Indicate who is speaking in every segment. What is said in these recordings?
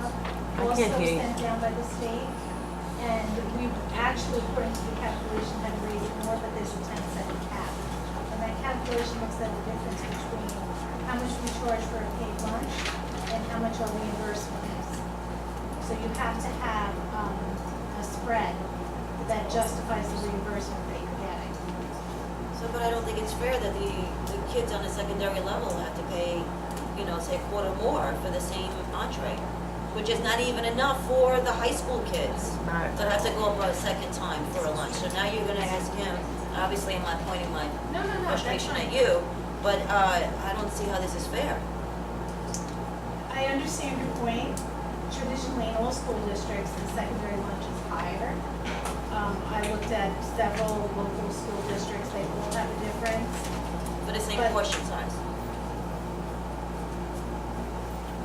Speaker 1: I
Speaker 2: also
Speaker 1: can't hear you.
Speaker 2: sent down by the state. And we actually, according to the calculation, had raised more, but there's a ten cent cap. And that calculation looks at the difference between how much we charge for a paid lunch and how much our reimbursement is. So you have to have, um, a spread that justifies the reimbursement that you're getting.
Speaker 3: So, but I don't think it's fair that the, the kids on a secondary level have to pay, you know, say a quarter more for the same entree, which is not even enough for the high school kids.
Speaker 1: Right.
Speaker 3: So I have to go up a second time for a lunch. So now you're gonna ask him, obviously I'm not pointing my
Speaker 2: No, no,
Speaker 3: frustration at you, but, uh, I don't see how this is fair.
Speaker 2: I understand your point. Traditionally, in all school districts, the secondary lunch is higher. Um, I looked at several local school districts, they all have a difference.
Speaker 3: For the same
Speaker 2: But-
Speaker 3: portion size.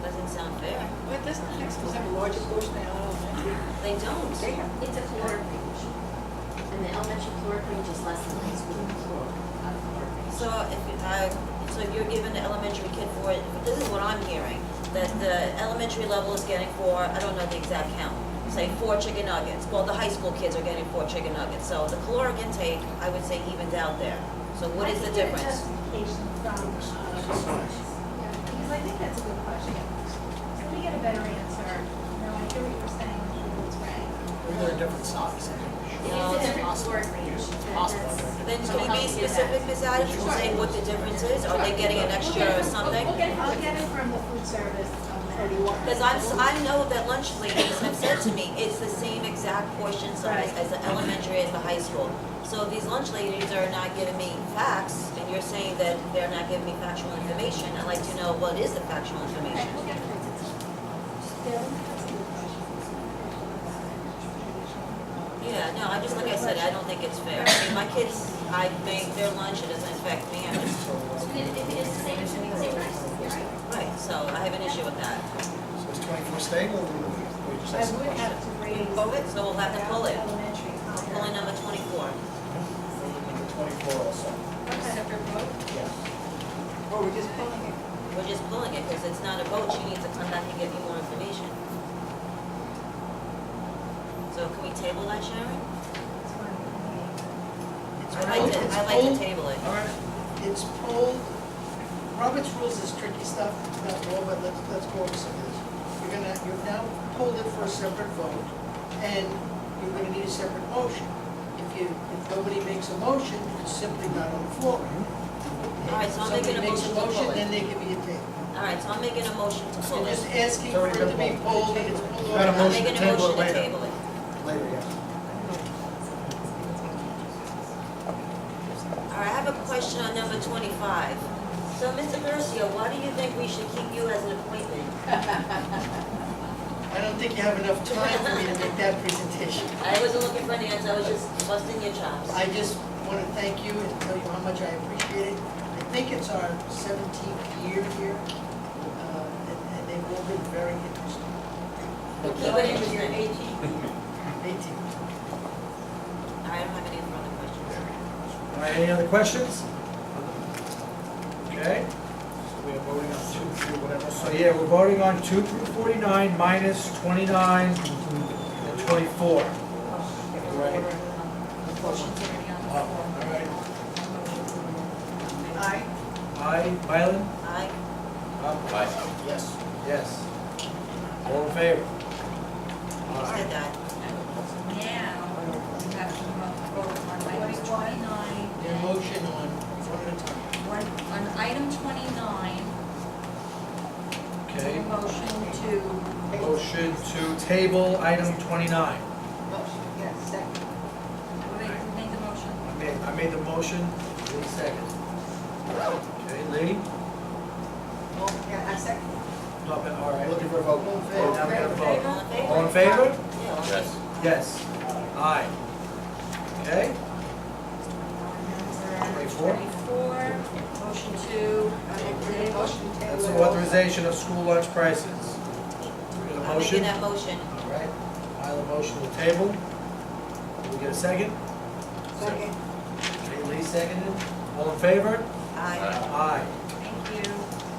Speaker 3: Doesn't sound fair.
Speaker 4: But doesn't the high school have a larger portion than elementary?
Speaker 3: They don't.
Speaker 4: They have.
Speaker 5: It's a caloric range. And the elementary caloric range is less than high school caloric, uh, caloric range.
Speaker 3: So if, you- I, so you're giving the elementary kid for, this is what I'm hearing, that the elementary level is getting for, I don't know the exact count, say four chicken nuggets, well, the high school kids are getting four chicken nuggets, so the caloric intake, I would say evens out there. So what is the
Speaker 2: I
Speaker 3: difference?
Speaker 2: think there's justification from, uh, yeah, because I think that's a good question. So we get a better answer. No, I hear what you're saying, it's right.
Speaker 4: They're a different size.
Speaker 3: No,
Speaker 5: It's a different caloric range.
Speaker 4: It's
Speaker 5: that-
Speaker 4: possible.
Speaker 5: that's-
Speaker 3: Then can
Speaker 5: so
Speaker 3: you be
Speaker 5: help you
Speaker 3: specific,
Speaker 5: that.
Speaker 3: Ms. Adams, and say what the difference is? Are they getting an extra or something?
Speaker 2: I'll get it from the food service. um,
Speaker 3: Because I'm, s- I know that lunch ladies have said to me, it's the same exact portion size as the elementary as the high school. So these lunch ladies are not giving me facts, and you're saying that they're not giving me factual information. I'd like to know what is the factual information? Yeah, no, I just, like I said, I don't think it's fair. I mean, my kids, I make their lunch, it doesn't affect me, I'm just,
Speaker 5: So if it- if it is the same, it should be the same price, you're right?
Speaker 3: right, so I have an issue with that.
Speaker 6: So it's twenty-four stable, or we just
Speaker 2: I
Speaker 6: ask the
Speaker 2: would
Speaker 6: question?
Speaker 2: have to raise.
Speaker 3: So we'll have to pull it,
Speaker 2: Elementary.
Speaker 3: pulling number twenty-four.
Speaker 6: Number Twenty-four also,
Speaker 4: Separate vote?
Speaker 6: yeah.
Speaker 4: Or we're just pulling Oh, it?
Speaker 3: We're just pulling it because it's not a vote. She needs to come back and give me more information. So can we table that, Sharon? I like to, I like to table it.
Speaker 4: All right, it's pulled. Robert's rules is tricky stuff, not law, but let's, let's go over some of this. You're gonna, you've now pulled it for a separate vote, and you're gonna need a separate motion. If you, if nobody makes a motion, it's simply not on the floor.
Speaker 3: All right, so I'll make an
Speaker 4: Somebody makes
Speaker 3: emotion to pull it.
Speaker 4: Then they give you a table.
Speaker 3: All right, so I'm making a motion to pull
Speaker 4: You're
Speaker 3: it.
Speaker 4: just asking
Speaker 6: It's
Speaker 4: for
Speaker 6: already
Speaker 4: it to
Speaker 6: been
Speaker 4: be
Speaker 6: pulled.
Speaker 4: pulled, and it's pulled
Speaker 6: Got
Speaker 4: over.
Speaker 6: a
Speaker 3: I'm
Speaker 6: motion
Speaker 3: making a
Speaker 6: to table it
Speaker 3: motion to
Speaker 6: later.
Speaker 3: table it.
Speaker 6: Later, yeah.
Speaker 3: All right, I have a question on number twenty-five. So, Mr. Mercio, why do you think we should keep you as an appointment?
Speaker 4: I don't think you have enough time for me to make that presentation.
Speaker 3: I wasn't looking for an answer, I was just busting your chops.
Speaker 4: I just want to thank you and tell you how much I appreciate it. I think it's our 17th year here, uh, and and they've all been very interesting.
Speaker 3: Keep it interesting.
Speaker 4: Eighteen.
Speaker 3: All right, I don't have any further questions.
Speaker 6: All right, any other questions? Okay, so we are voting on two through whatever, so yeah, we're voting on two through forty-nine minus twenty-nine and twenty-four. Right. Oh, All right,
Speaker 4: Aye.
Speaker 6: aye, Mylan?
Speaker 3: Aye.
Speaker 6: Aye. Yes. Yes. All in favor?
Speaker 3: You said that.
Speaker 7: Now, you have to vote on item twenty-nine.
Speaker 4: Your motion on one at a time.
Speaker 7: One- On item twenty-nine,
Speaker 6: Okay,
Speaker 7: motion to,
Speaker 6: motion to table item twenty-nine.
Speaker 4: Motion, yes, second.
Speaker 7: make, make the motion.
Speaker 6: I made, I made the motion, Lee second. Okay, Lee?
Speaker 4: Oh, yeah, I second.
Speaker 6: No, but, all right.
Speaker 4: Looking for a vote. All in favor?
Speaker 6: Now we gotta vote.
Speaker 3: All in favor?
Speaker 6: All in favor?
Speaker 3: Yeah.
Speaker 8: Yes.
Speaker 6: Yes. Aye. Okay? Twenty-four.
Speaker 7: Twenty-four, motion to, uh,
Speaker 4: Your
Speaker 7: table.
Speaker 4: motion to table
Speaker 6: That's
Speaker 4: it.
Speaker 6: authorization of school lunch prices. Get a
Speaker 3: I'm making
Speaker 6: motion?
Speaker 3: that motion.
Speaker 6: All right, I have a motion to table. Can we get a second?
Speaker 4: Second.
Speaker 6: Okay, Lee seconded. All in favor?
Speaker 3: Aye.
Speaker 6: Aye.